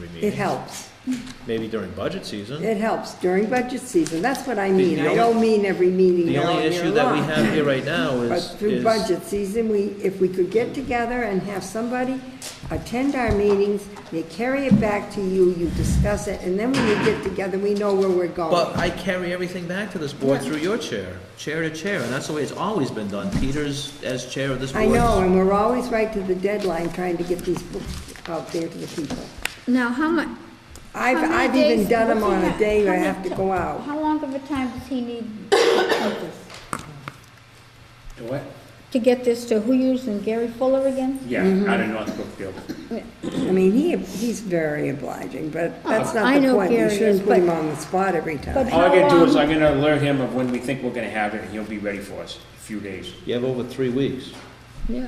It meetings. helps. Maybe during budget season. It helps during budget season. That's what I The- mean. the I don't only- mean every meeting The all only year issue that we long. have here right now But is, through is, budget season, we, if we could get together and have somebody attend our meetings, they carry it back to you, you discuss it, and then when we get together, we know where we're but going. I carry everything back to this board through your chair, chair to chair, and that's the way it's always been done. Peter's as chair of this board. I know, and we're always right to the deadline trying to get these books out there to the people. Now, how much? I've, I've even done them on a day where I have to go out. How long of a time does he need to The what? get this to who used and Gary Fuller again? Yeah, out of North Brookfield. I mean, he, he's very obliging, but that's Oh, not I the know point. You Gary is, shouldn't put but- him on the spot every but- time. All I gotta do is How I'm gonna alert him of when we think we're gonna have it, and he'll be ready for us, a few days. You have over three weeks. Yeah.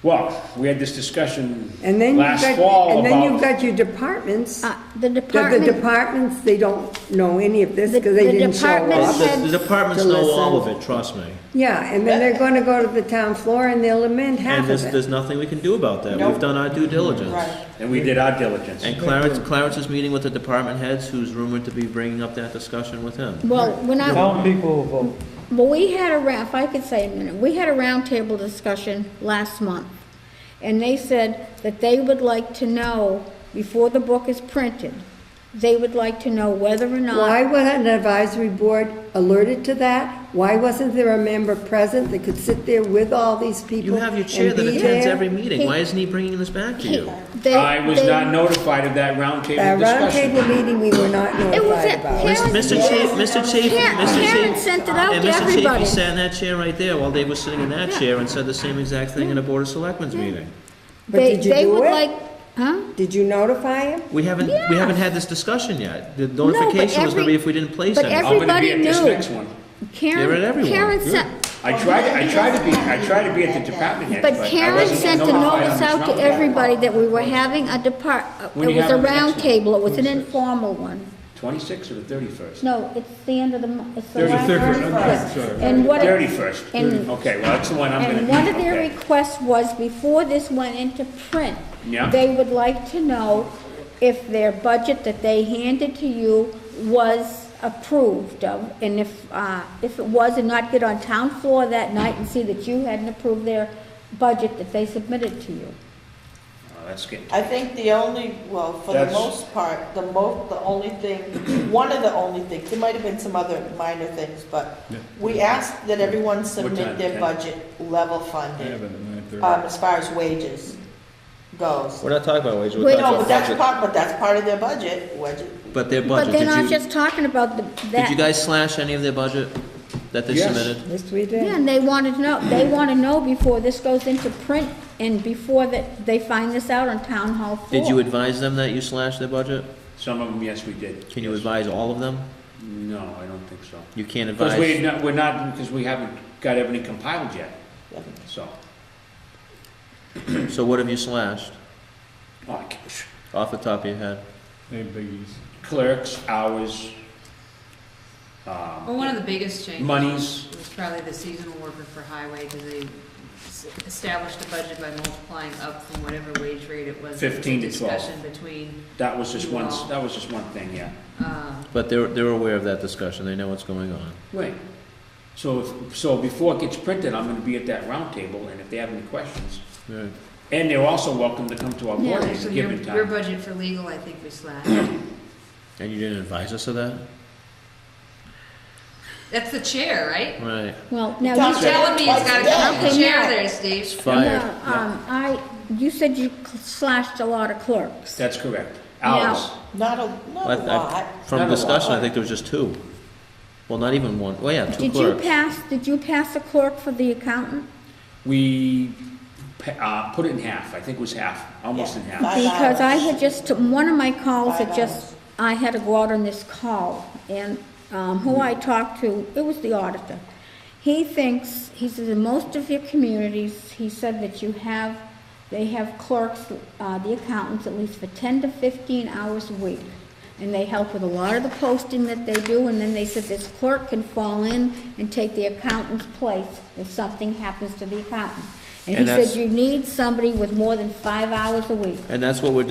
Well, we had this discussion And then you've last got, fall and then you've about, got your departments. Uh, The, The the department, departments, they don't know any of this The- because they the didn't show department up. head- The the departments To know all of listen. it, trust me. Yeah, and then they're gonna go to the town floor and they'll amend And half there's, of it. Mm-hmm. there's nothing we can do about that. We've done our due diligence. and we did our diligence. And Clarence, Clarence is meeting with the department heads, who's rumored to be bringing up that discussion with him. well, when I, Town people will vote. well, we had a, ra- if I could say a minute, we had a roundtable discussion last month. And they said that they would like to know, before the book is printed, they would like to know whether or not. Why wasn't an advisory board alerted to that? Why wasn't there a member present that could sit there with all these people You have your chair and that be attends there? every meeting. Why He- isn't he bringing this back to He- you? they- I was they- not notified of that That roundtable discussion. roundtable meeting, we were not It was notified at about. Karen- Mr. Chafe, Mr. Chafe, Yeah, Mr. Karen Chafe. sent it out And to Mr. everybody. Chafee sat in that chair right there while Dave was sitting in that Yeah. chair and said the same exact thing in a Board of Selectmen's meeting. But They, did you they do would it? like, huh? Did you notify him? We haven't, we haven't had this discussion yet. The notification was gonna every- be if we didn't place but any. every- I'm gonna be at this Everybody knew. next one. They read Karen, everyone. Karen sent, I tried, I tried to be, I tried to be at the department head, but but I Karen wasn't sent a notified on notice this out to roundtable. everybody that we were having a depart, uh, When it you was a have the next round one? table, it was an Who's this? informal one. Twenty-sixth or the thirty-first? No, it's the end of the month, it's the There's a last. third one, Yes. And what. Thirty-first. And- Okay, well, that's the one I'm gonna And be, one of their okay. requests was, before this went into print, Yeah. they would like to know if their budget that they handed to you was approved of, and if, uh, if it was, and not get on town floor that night and see that you hadn't approved their budget that they submitted to you. Oh, That's good. I think the only, well, for the That's- most part, the mo, the only thing, one of the only things, there might have been some other minor things, but we asked that everyone time, submit their Ken? budget level funded, um, as far as wages goes. We're not talking about wages, we're Wait, talking No, about but that's budget. part, but that's part of their budget, budget. But their But budget, then I'm did you, just talking about the- did that. you guys slash any of their budget that they Yes. submitted? Yes, we Yeah, did. and they wanted to know, they want to know before this goes into print, and before that, they find this out on town hall floor. Did you advise them that you slashed their budget? Some of them, yes, we did. Can you Yes. advise all of them? No, I don't think so. You can't Because we're advise, not, we're not, because we haven't got everything compiled yet, so. so what have you slashed oh, I can't- off the top of your head? Clerks, hours, um, Well, one of the biggest changes. monies, Was probably the seasonal worker for highway, because they s- established a budget by multiplying up from whatever wage rate it was. 15 to 12. Discussion between, that was just one, that was just one thing, yeah. um, But they're, they're aware of that discussion, they know what's going on. Right. So, if- so before it gets printed, I'm gonna be at that roundtable, and if they have any questions, Right. and they're also welcome to come to our board at so a your, given your time. budget for legal, I think we slashed. And you didn't advise us of that? That's the chair, right? Right, Well, now. Don't you- say Telling me it's gotta come from the Okay, chair now- there, Steve. it's Yeah, fired. um, I, you said you slashed a lot of clerks. That's correct. Hours, Not a, Well, not a I- lot. I- From Not a discussion, I lot. think there was just two. Well, not even one. Well, yeah, two Did you clerks. pass, did you pass a clerk for the accountant? we, pa- uh, put it in half, I think it was half, almost in half. Five Because I hours. had just, took- one of my calls Five had just, I had to go out on this call, and um, who I talked to, it was the auditor. He thinks, he says, in most of your communities, he said that you have, they have clerks, uh, the accountants, at least for 10 to 15 hours a week. And they help with a lot of the posting that they do, and then they said this clerk can fall in and take the accountant's place if something happens to the accountant. And he And that's- said you need somebody with more than five hours a week. And that's what we're